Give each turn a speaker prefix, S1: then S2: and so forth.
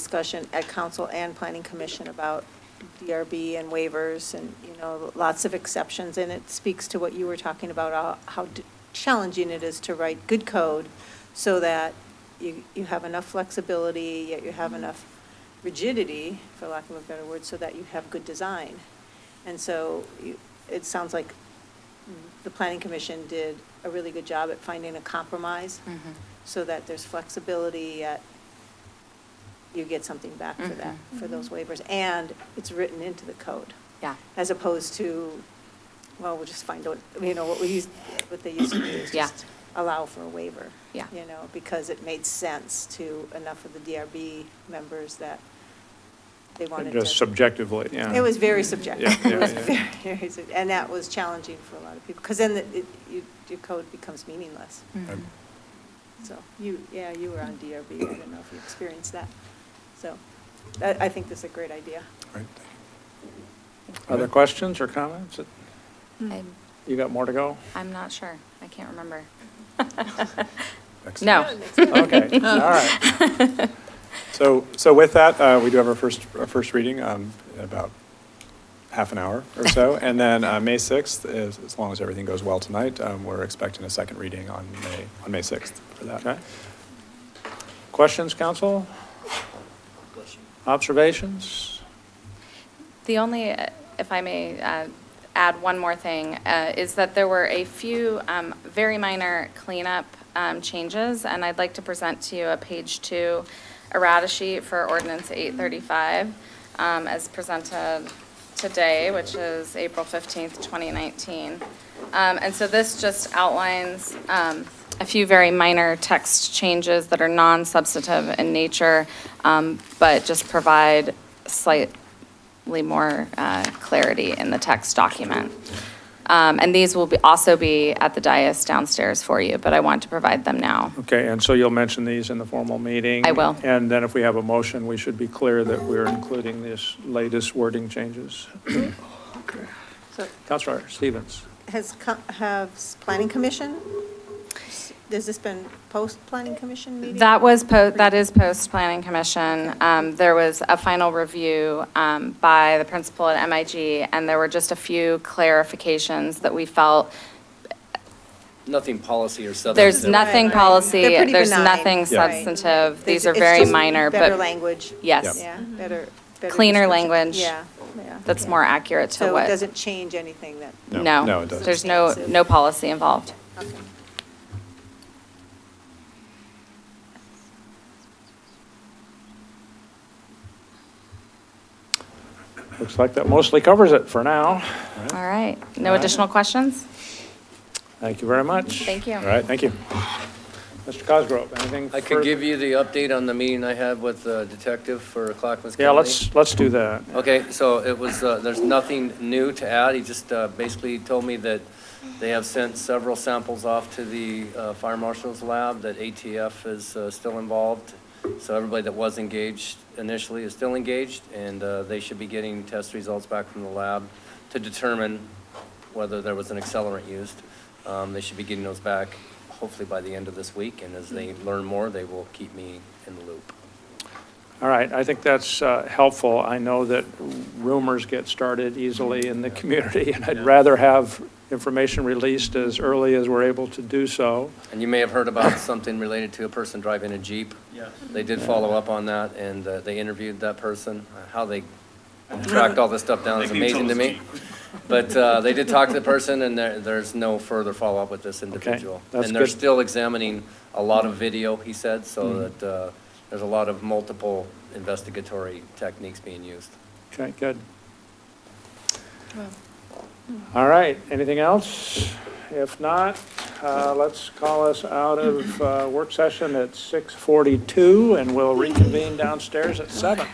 S1: discussion at council and planning commission about DRB and waivers and, you know, lots of exceptions. And it speaks to what you were talking about, uh, how d- challenging it is to write good code so that you, you have enough flexibility, yet you have enough rigidity, for lack of a better word, so that you have good design. And so you- it sounds like the planning commission did a really good job at finding a compromise so that there's flexibility, yet you get something back for that, for those waivers. And it's written into the code,
S2: Yeah,
S1: as opposed to, well, we'll just find out, you know, what we used, what they used to do is
S2: Yeah.
S1: just allow for a waiver.
S2: Yeah.
S1: You know, because it made sense to enough of the DRB members that they wanted to.
S3: Just subjectively, yeah.
S1: It was very subjective.
S3: Yeah,
S1: It was
S3: yeah, yeah.
S1: very, very sub- And that was challenging for a lot of people, because then it- it- you- your code becomes meaningless.
S2: Mhm.
S3: Mm-hmm.
S1: So you, yeah, you were on DRB, I don't know if you experienced that. So I I think this is a great idea.
S4: Right.
S3: Other questions or comments?
S2: I'm,
S3: You got more to go?
S2: I'm not sure. I can't remember.
S4: Excellent.
S2: No.
S3: Okay, all right.
S4: So, so with that, uh, we do have our first, our first reading um, in about half an hour or so. And then uh, May 6th, is- as long as everything goes well tonight, um, we're expecting a second reading on May, on May 6th for
S3: Okay.
S4: that.
S3: Questions, council? Observations?
S2: The only, uh, if I may uh, add one more thing, uh, is that there were a few um, very minor cleanup um, changes, and I'd like to present to you a page two errata sheet for ordinance 835 um, as presented today, which is April 15th, 2019. Um, And so this just outlines um, a few very minor text changes that are non-substantive in nature, um, but just provide slight slightly more uh, clarity in the text document. Um, And these will be, also be at the dais downstairs for you, but I want to provide them now.
S3: Okay, and so you'll mention these in the formal meeting?
S2: I will.
S3: And then if we have a motion, we should be clear that we're including these latest wording changes.
S1: So
S3: Counselor Stevens?
S1: has, co- have s- planning commission, has this been post-planning commission meeting?
S2: That was, po- that is post-planning commission. Um, There was a final review um, by the principal at MIG, and there were just a few clarifications that we felt,
S5: Nothing policy or substance.
S2: there's
S1: Right,
S2: nothing
S1: right.
S2: policy,
S1: They're pretty
S2: there's
S1: benign,
S2: nothing
S1: right.
S2: substantive. These are
S1: It's
S2: very
S1: just
S2: minor,
S1: Better
S2: but
S1: language.
S2: Yes.
S1: Yeah, better. better
S2: Cleaner
S1: description.
S2: language.
S1: Yeah, yeah.
S2: that's more accurate to
S1: So
S2: what.
S1: it doesn't change anything that,
S4: No,
S2: No.
S4: no, it doesn't.
S2: There's no, no policy involved.
S1: okay.
S3: Looks like that mostly covers it for now.
S2: All right. No
S3: All right.
S2: additional questions?
S3: Thank you very much.
S2: Thank you.
S4: All right, thank you.
S3: Mr. Cosgrove, anything?
S5: I
S3: fur-
S5: could give you the update on the meeting I had with the detective for Clackamas County.
S3: Yeah, let's, let's do that.
S5: Okay, so it was, uh, there's nothing new to add. He just uh, basically told me that they have sent several samples off to the uh, fire marshal's lab, that ATF is uh, still involved. So everybody that was engaged initially is still engaged, and uh, they should be getting test results back from the lab to determine whether there was an accelerant used. Um, They should be getting those back hopefully by the end of this week, and as they learn more, they will keep me in the loop.
S3: All right, I think that's uh, helpful. I know that rumors get started easily in the community, and I'd rather have information released as early as we're able to do so.
S5: And you may have heard about something related to a person driving a Jeep. Yes. They did follow up on that, and uh, they interviewed that person. Uh, How they tracked all this stuff down is amazing to me. But uh, they did talk to the person, and there, there's no further follow-up with this individual.
S3: that's
S5: And they're
S3: good. Hmm.
S5: still examining a lot of video, he said, so that uh, there's a lot of multiple investigatory techniques being used.
S3: Okay, good. All right, anything else? If not, uh, let's call us out of uh, work session at 6:42, and we'll reconvene downstairs at 7.